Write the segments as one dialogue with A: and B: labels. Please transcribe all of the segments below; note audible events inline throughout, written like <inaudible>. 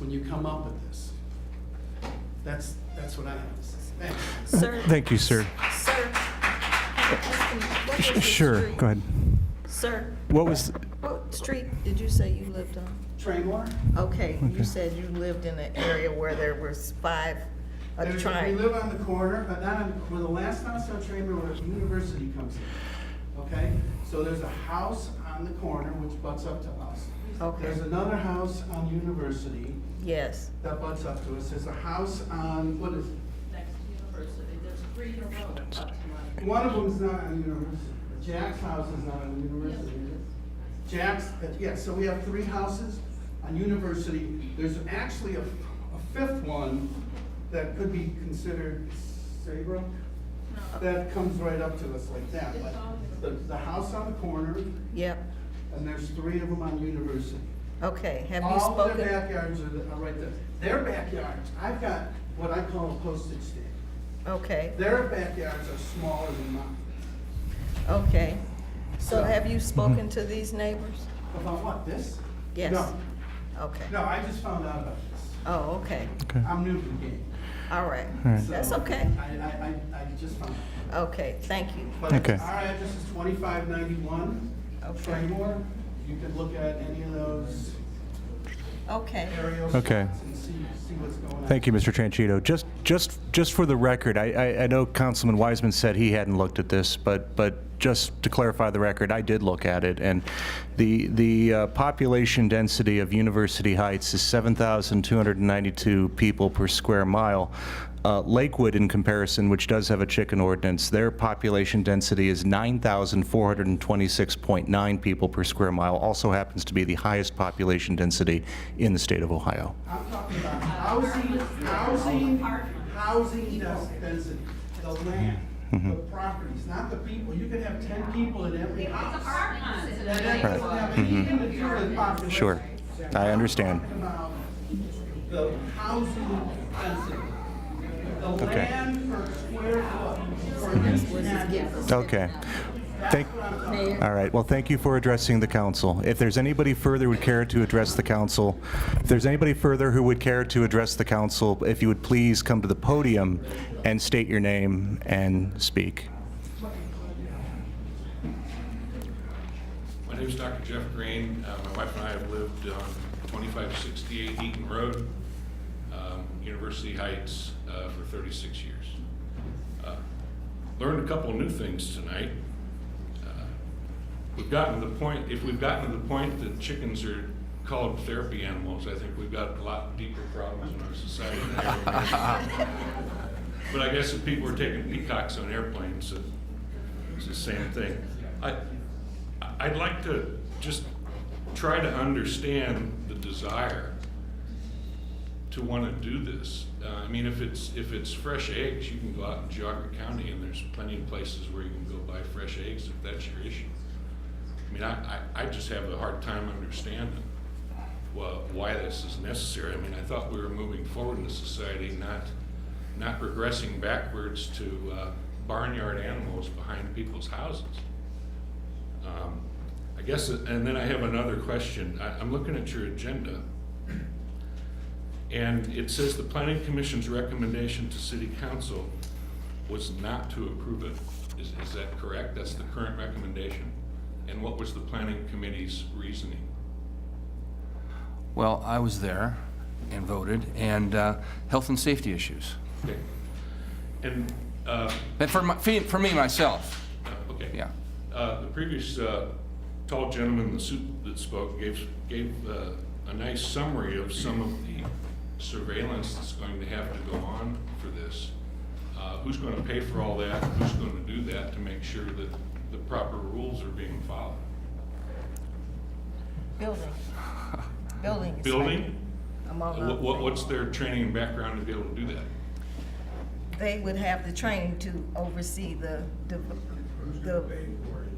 A: when you come up with this. That's, that's what I have to say. Thanks.
B: Sir?
C: <laughs> Thank you, sir.
B: Sir? I have a question. What was the
C: Sure,
B: street-
C: go ahead.
B: Sir,
C: What was,
B: what street did you say you lived on?
A: Traymore?
D: Okay,
C: Okay.
D: you said you lived in an area where there was five, a
A: There's- We
D: triangle.
A: live on the corner, but not on, where the last house on Tramer, where University comes in, okay? So there's a house on the corner which butts up to us.
D: Okay.
A: There's another house on University
D: Yes,
A: that butts up to us. There's a house on, what is,
E: next to university, there's three in a row, up to my
A: one of them's not on University. Jack's house is not on University, is it? Jack's, uh, yeah, so we have three houses on University. There's actually a, a fifth one that could be considered Saybrook. That comes right up to us like that, but there's the house on the corner, and
D: yep,
A: there's three of them on University.
D: okay, have you
A: All their
D: spoken?
A: backyards are, the- are right there. Their backyards, I've got what I call a postage stamp.
D: Okay,
A: Their backyards are smaller than mine.
D: okay. So
A: So-
D: have
C: Mm-hmm.
D: you spoken to these neighbors?
A: About what, this?
D: Yes.
A: No,
D: Okay,
A: no, I just found out about this.
D: oh, okay,
C: okay,
A: I'm new to the game.
D: all right,
C: All right.
D: that's
A: so
D: okay,
A: I, I, I, I just found out.
D: okay, thank you.
A: But
C: Okay.
A: our address is twenty-five ninety-one,
D: Okay.
A: Traymore. You could look at any of those
D: Okay,
A: aerial
C: Okay.
A: shots and see, see what's going on.
C: thank you, Mr. Tranchito. Just, just, just for the record, I, I, I know Councilman Wiseman said he hadn't looked at this, but, but just to clarify the record, I did look at it, and the, the uh, population density of University Heights is 7,292 people per square mile. Uh, Lakewood, in comparison, which does have a chicken ordinance, their population density is 9,426.9 people per square mile, also happens to be the highest population density in the state of Ohio.
A: I'm talking about housing, housing, housing density, the land,
C: Mm-hmm.
A: the properties, not the people. You could have ten people in every house. And that doesn't have anything to do with population.
C: Mm-hmm. Sure. I understand.
A: I'm talking about the housing density, the
C: Okay.
A: land per square foot for each address.
C: Okay. Thank, all right, well, thank you for addressing the council. If there's anybody further who would care to address the council, if there's anybody further who would care to address the council, if you would please come to the podium and state your name and speak.
F: My name is Dr. Jeff Green. Uh, My wife and I have lived on 2568 Eaton Road, um, University Heights, uh, for 36 years. Uh, Learned a couple new things tonight. Uh, We've gotten to the point, if we've gotten to the point that chickens are called therapy animals, I think we've got a lot deeper problems in our society. than I remember. But I guess if people were taking peacocks on airplanes, it- it's the same thing. I, I'd like to just try to understand the desire to want to do this. Uh, I mean, if it's, if it's fresh eggs, you can go out in Geauga County and there's plenty of places where you can go buy fresh eggs if that's your issue. I mean, I, I, I just have a hard time understanding well, why this is necessary. I mean, I thought we were moving forward in a society, not, not regressing backwards to uh, barnyard animals behind people's houses. Um, I guess, and then I have another question. I, I'm looking at your agenda. And it says the planning commission's recommendation to city council was not to approve it. Is, is that correct? That's the current recommendation? And what was the planning committee's reasoning?
G: Well, I was there and voted, and uh, health and safety issues.
F: Okay. And, uh,
G: But for my, for me, myself,
F: uh, okay.
G: yeah.
F: Uh, The previous uh, tall gentleman in the suit that spoke gave, gave uh, a nice summary of some of the surveillance that's going to have to go on for this. Uh, Who's going to pay for all that? Who's going to do that to make sure that the proper rules are being followed?
D: building, building. inspector.
F: Building?
D: Among other
F: What- what-
D: things.
F: What's their training and background to be able to do that?
D: They would have the training to oversee the, the, the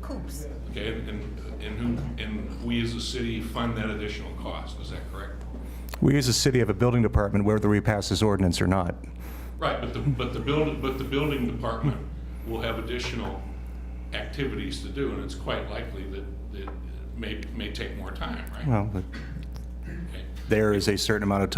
D: coops.
F: Okay, and, and- and who, and we as a city fund that additional cost, is that correct?
C: We as a city have a building department whether we pass this ordinance or not.
F: Right, but the, but the building, but the building department will have additional activities to do, and it's quite likely that, that it may, may take more time, right?
C: Well, but
F: Okay.
C: there is a certain amount of time